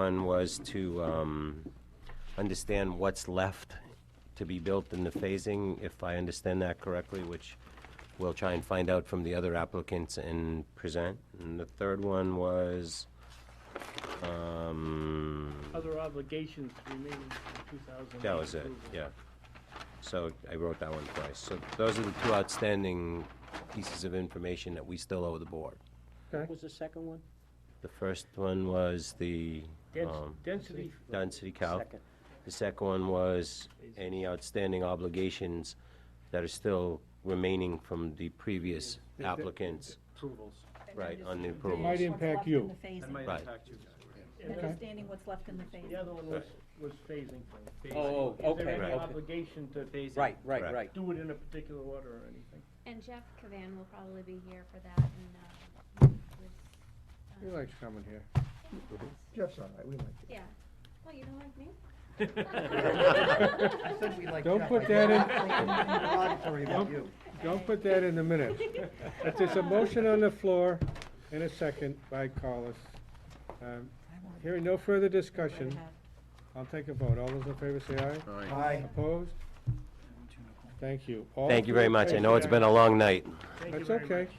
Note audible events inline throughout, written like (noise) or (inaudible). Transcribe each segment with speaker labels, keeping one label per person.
Speaker 1: One was to um, understand what's left to be built in the phasing, if I understand that correctly, which we'll try and find out from the other applicants and present. And the third one was, um,
Speaker 2: Other obligations remaining from 2008.
Speaker 1: that was it,
Speaker 2: approval.
Speaker 1: yeah. So I wrote that one twice. So those are the two outstanding pieces of information that we still owe the board.
Speaker 3: What was the second one?
Speaker 1: The first one was the
Speaker 2: Dens-
Speaker 1: um,
Speaker 2: Density,
Speaker 1: density calc.
Speaker 3: Second.
Speaker 1: The second one was any outstanding obligations that are still remaining from the previous applicants,
Speaker 4: approvals.
Speaker 1: right, on the
Speaker 5: Understanding
Speaker 1: approvals.
Speaker 5: what's
Speaker 6: impact
Speaker 5: left
Speaker 6: you.
Speaker 5: in the phasing.
Speaker 4: That might
Speaker 1: Right.
Speaker 4: impact you.
Speaker 2: and then
Speaker 5: Understanding what's left in the
Speaker 2: the
Speaker 5: phasing.
Speaker 2: other one was, was phasing.
Speaker 3: Oh, oh,
Speaker 2: Is there
Speaker 3: okay,
Speaker 2: any
Speaker 3: okay.
Speaker 2: obligation to
Speaker 4: Phasing.
Speaker 3: Right, right,
Speaker 1: Correct.
Speaker 3: right.
Speaker 2: do it in a particular order or
Speaker 1: (laughs)
Speaker 2: anything?
Speaker 7: And Jeff Cavan will probably be here for that and, uh, with,
Speaker 6: He
Speaker 7: uh,
Speaker 6: likes coming here.
Speaker 8: Jeff's all right, we like it.
Speaker 7: yeah. Well, you don't like me?
Speaker 8: (laughs) I said
Speaker 7: (laughs)
Speaker 8: we like Jeff.
Speaker 6: Don't put
Speaker 8: I
Speaker 6: that
Speaker 8: did
Speaker 6: in-
Speaker 8: not think anything derogatory about
Speaker 6: Nope.
Speaker 8: you.
Speaker 6: Don't put that in the minutes. If there's a motion on the floor and a second by Carlos, um, hearing no further discussion, I'll take a vote. All those in favor say aye.
Speaker 8: Aye.
Speaker 6: Opposed? Thank you. All
Speaker 1: Thank you very
Speaker 6: three in
Speaker 1: much. I know
Speaker 6: favor?
Speaker 1: it's been a long night.
Speaker 2: Thank you
Speaker 6: That's
Speaker 2: very
Speaker 6: okay.
Speaker 2: much.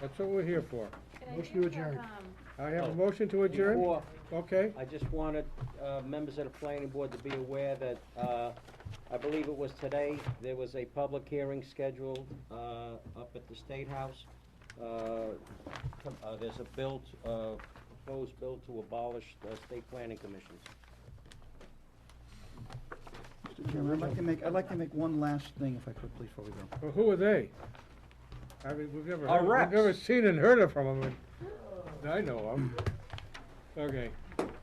Speaker 6: That's what we're here for.
Speaker 7: Could I
Speaker 8: Motion
Speaker 7: do
Speaker 8: to
Speaker 7: have,
Speaker 8: adjourn.
Speaker 7: um,
Speaker 6: I have a motion to adjourn?
Speaker 3: Oh. Before,
Speaker 6: Okay.
Speaker 3: I just wanted, uh, members of the planning board to be aware that, uh, I believe it was today, there was a public hearing scheduled, uh, up at the State House. Uh, com- uh, there's a bill, t- uh, proposed bill to abolish the state planning commissions.
Speaker 8: Mr. Chairman, I'd like to make, I'd like to make one last thing if I could, please, before we go.
Speaker 6: Well, who are they? I mean, we've never,
Speaker 3: Our
Speaker 6: heard-
Speaker 3: reps.
Speaker 6: we've never seen and heard of from them. I know them. Okay,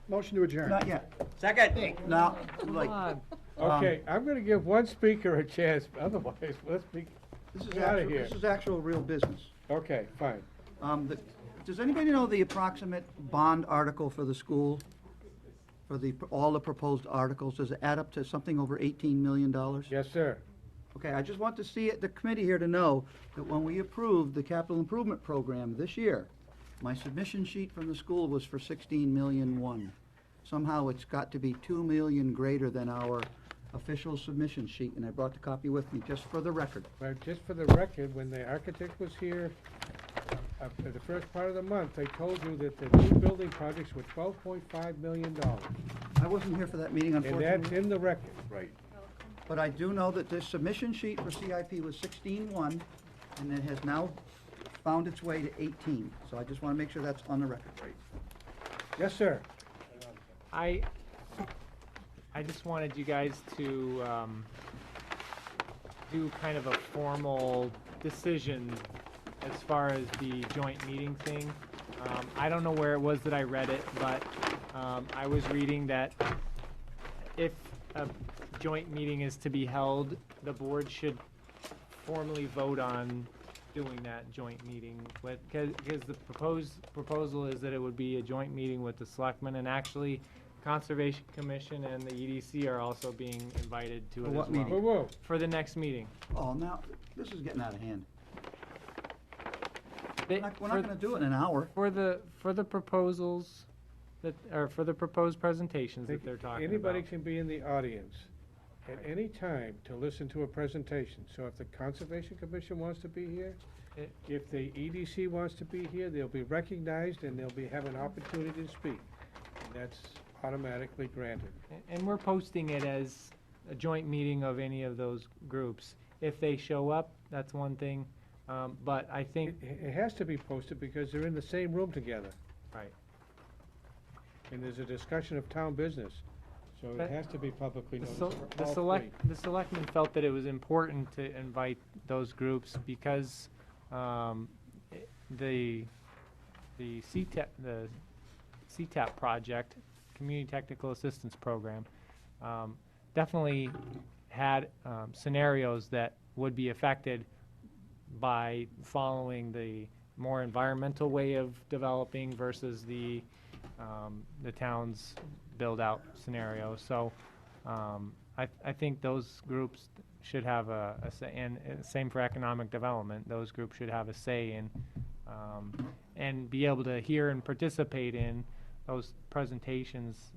Speaker 8: Motion to adjourn. Not yet.
Speaker 3: Second.
Speaker 8: No, too late. Um,
Speaker 6: okay, I'm gonna give one speaker a chance, otherwise, let's be,
Speaker 8: This is
Speaker 6: Get outta
Speaker 8: actual,
Speaker 6: here.
Speaker 8: this is actual real business.
Speaker 6: okay, fine.
Speaker 8: Um, the, does anybody know the approximate bond article for the school? For the, all the proposed articles, does it add up to something over eighteen million dollars?
Speaker 6: Yes, sir.
Speaker 8: Okay, I just want to see it, the committee here to know that when we approved the capital improvement program this year, my submission sheet from the school was for sixteen million one. Somehow it's got to be two million greater than our official submission sheet, and I brought the copy with me just for the record.
Speaker 6: Well, just for the record, when the architect was here, uh, for the first part of the month, they told you that the new building projects were twelve point five million dollars.
Speaker 8: I wasn't here for that meeting
Speaker 6: And that's
Speaker 8: unfortunately,
Speaker 6: in the record. Right.
Speaker 8: but I do know that this submission sheet for CIP was sixteen one, and it has now found its way to eighteen. So I just want to make sure that's on the record.
Speaker 6: Yes, sir.
Speaker 9: I, I just wanted you guys to, um, do kind of a formal decision as far as the joint meeting thing. Um, I don't know where it was that I read it, but, um, I was reading that if a joint meeting is to be held, the board should formally vote on doing that joint meeting, but, cause, 'cause the proposed, proposal is that it would be a joint meeting with the selectmen, and actually, Conservation Commission and the EDC are also being invited to it
Speaker 8: For
Speaker 9: as
Speaker 8: what
Speaker 2: Uh-huh.
Speaker 9: well.
Speaker 6: Whoa,
Speaker 8: meeting?
Speaker 6: whoa,
Speaker 9: For the next meeting.
Speaker 8: Oh, now, this is getting out of hand.
Speaker 9: They-
Speaker 8: We're not, we're
Speaker 9: for-
Speaker 8: not gonna do it in an hour.
Speaker 9: For the, for the proposals that, or for the proposed presentations that they're talking about.
Speaker 6: Anybody can be in the audience at any time to listen to a presentation. So if the Conservation Commission wants to be here,
Speaker 9: It-
Speaker 6: if the EDC wants to be here, they'll be recognized and they'll be, have an opportunity to speak. And that's automatically granted.
Speaker 9: A- And we're posting it as a joint meeting of any of those groups. If they show up, that's one thing, um, but I
Speaker 6: It,
Speaker 9: think,
Speaker 6: it has to be posted because they're in the same room together.
Speaker 9: Right.
Speaker 6: And there's a discussion of town business, so it
Speaker 9: But-
Speaker 6: has to be publicly
Speaker 9: the
Speaker 6: noticed.
Speaker 9: sel-
Speaker 6: for
Speaker 9: the
Speaker 6: all
Speaker 9: select, the selectmen felt that it was important to invite those groups because, um, i- the, the CTEP, the CTAP project, Community Technical Assistance Program, um, definitely had um, scenarios that would be affected by following the more environmental way of developing versus the, um, the town's build-out scenario. So um, I, I think those groups should have a, a say, and uh, same for economic development, those groups should have a say in, um, and be able to hear and participate in those presentations